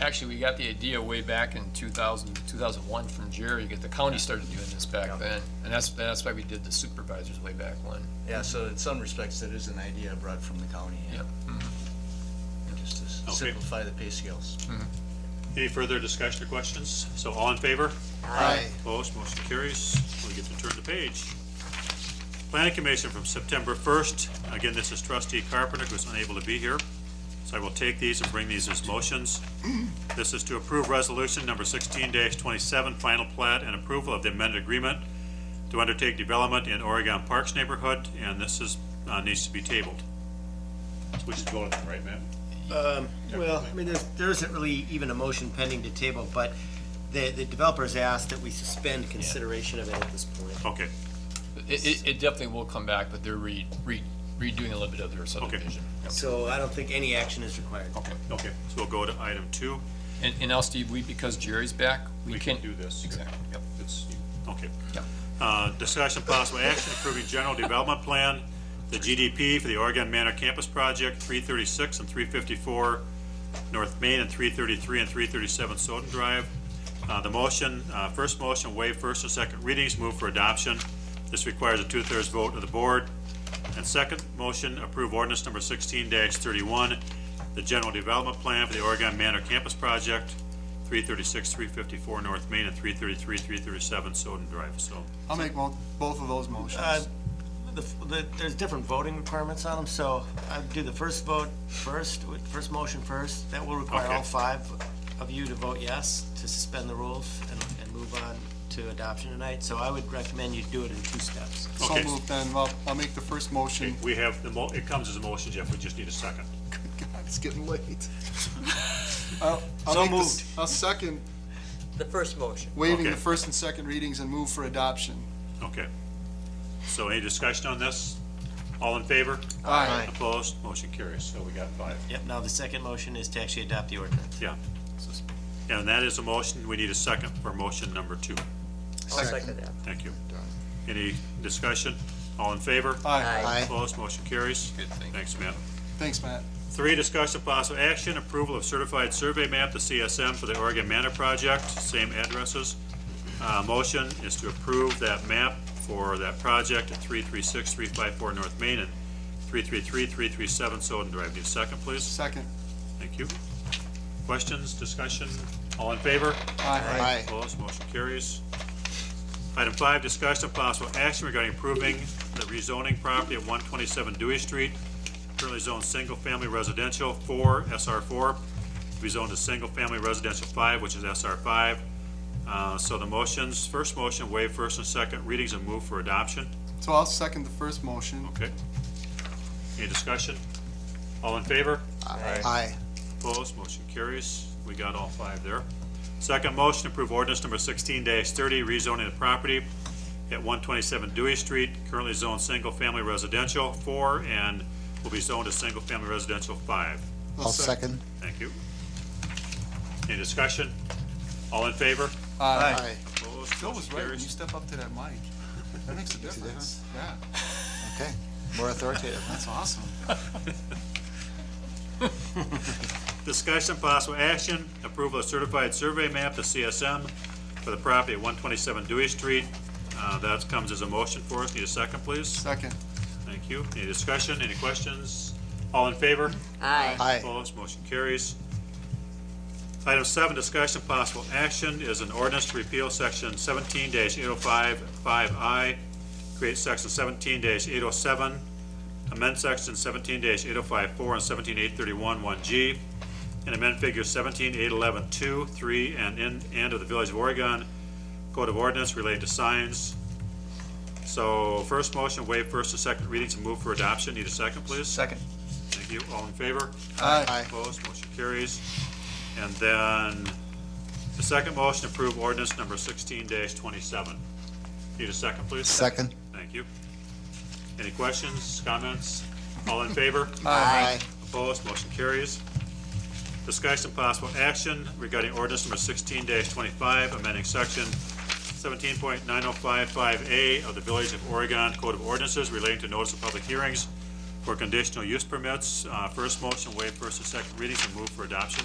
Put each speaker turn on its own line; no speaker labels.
actually, we got the idea way back in 2000, 2001 from Jerry, because the county started doing this
Yeah.
back then. And that's, that's why we did the supervisors way back when.
Yeah, so in some respects, that is an idea brought from the county, yeah.
Yep.
Just to s-
Okay.
simplify the pay scales.
Any further discussion or questions? So all in favor?
Aye.
Opposed, motion carries. We get to turn the page. Planning Commission from September 1st. Again, this is trustee Carpenter, who's unable to be here. So I will take these and bring these as motions. This is to approve resolution number 16-27, final plat and approval of the amended agreement to undertake development in Oregon Parks neighborhood, and this is, uh, needs to be tabled. We should vote on it, right, Matt?
Um, Well, I mean, there's, there isn't really even a motion pending to table, but the, the developers asked that we suspend consideration of it at this point.
Okay.
It, it, it definitely will come back, but they're re, re, redoing a little bit of their subdivision.
So I don't think any action is required.
Okay, so we'll go to item two.
And, and now, Steve, we, because Jerry's back, we
We
can.
can do this.
Exactly, yep.
It's, okay.
Yep.
Uh, Discussion possible action approving general development plan, the GDP for the Oregon Manor Campus Project, 336 and 354 North Main, and 333 and 337 Soden Drive. Uh, The motion, uh, first motion, waive first and second readings, move for adoption. This requires a two-thirds vote of the board. And second motion, approve ordinance number 16-31, the general development plan for the Oregon Manor Campus Project, 336, 354 North Main, and 333, 337 Soden Drive. So
I'll make mo- both of those
Uh,
motions.
the, the, there's different voting requirements on them, so I'd do the first vote first, with- first motion first. That will require all
Okay.
five of you to vote yes, to suspend the rules and, and move on to adoption tonight. So I would recommend you do it in two steps.
So
okay.
moved then, I'll, I'll make the first motion.
we have, the mo, it comes as a motion, Jeff, we just need a second.
Good God, it's getting late. I'll- I'll
So
make the s- I'll second,
The first motion.
waiving the
Okay.
first and second readings and move for adoption.
Okay. So any discussion on this? All in favor?
Aye.
Opposed? Motion carries. So we got five.
Yep, now the second motion is to actually adopt the ordinance.
Yeah. And that is a motion. We need a second for motion number two.
I'll second that.
Thank you. Any discussion? All in favor?
Aye.
Opposed? Motion carries.
Good, thank you.
Thanks, Matt.
Thanks, Matt.
Three, discussion of possible action, approval of certified survey map to CSM for the Oregon Manor Project, same addresses. Uh, motion is to approve that map for that project at three three six, three five four North Main and three three three, three three seven Soden Drive. Need a second, please?
Second.
Thank you. Questions, discussion? All in favor?
Aye.
Opposed, motion carries. Item five, discussion of possible action regarding approving the rezoning property at one twenty-seven Dewey Street, currently zoned single-family residential four, SR four, to be zoned to single-family residential five, which is SR five. Uh, so the motions, first motion, waive first and second readings and move for adoption.
So I'll second the first motion.
Okay. Any discussion? All in favor?
Aye.
Opposed, motion carries. We got all five there. Second motion, approve ordinance number sixteen thirty, rezoning the property at one twenty-seven Dewey Street, currently zoned single-family residential four and will be zoned as single-family residential five.
I'll second.
Thank you. Any discussion? All in favor?
Aye.
Opposed,
Phil was
motion
right, when you
carries.
step up to that mic, that makes a difference. Yeah,
Okay, more authoritative.
that's awesome.
Discussion, possible action, approval of certified survey map to CSM for the property at one twenty-seven Dewey Street. Uh, that comes as a motion for us. Need a second, please?
Second.
Thank you. Any discussion, any questions? All in favor?
Aye.
Aye,
Opposed, motion carries. Item seven, discussion of possible action is an ordinance to repeal section seventeen 805 eight oh five, five I, create section seventeen eight oh seven, amend section seventeen eight oh five four and seventeen eight thirty-one one G, and amend figures seventeen eight eleven two, three, and in, and of the Village of Oregon Code of Ordinance related to signs. So first motion, waive first and second readings and move for adoption. Need a second, please?
Second.
Thank you. All in favor?
Aye.
aye,
Opposed, motion carries. And then the second motion, approve ordinance number sixteen twenty-seven. Need a second, please?
second.
Thank you. Any questions, comments? All in favor?
Aye.
Opposed, motion carries. Discussion and possible action regarding ordinance number sixteen twenty-five, amending section seventeen point nine oh five five A of the Village of Oregon Code of Ordinances relating to notice of public hearings for conditional use permits. Uh, first motion, waive first and second readings and move for adoption.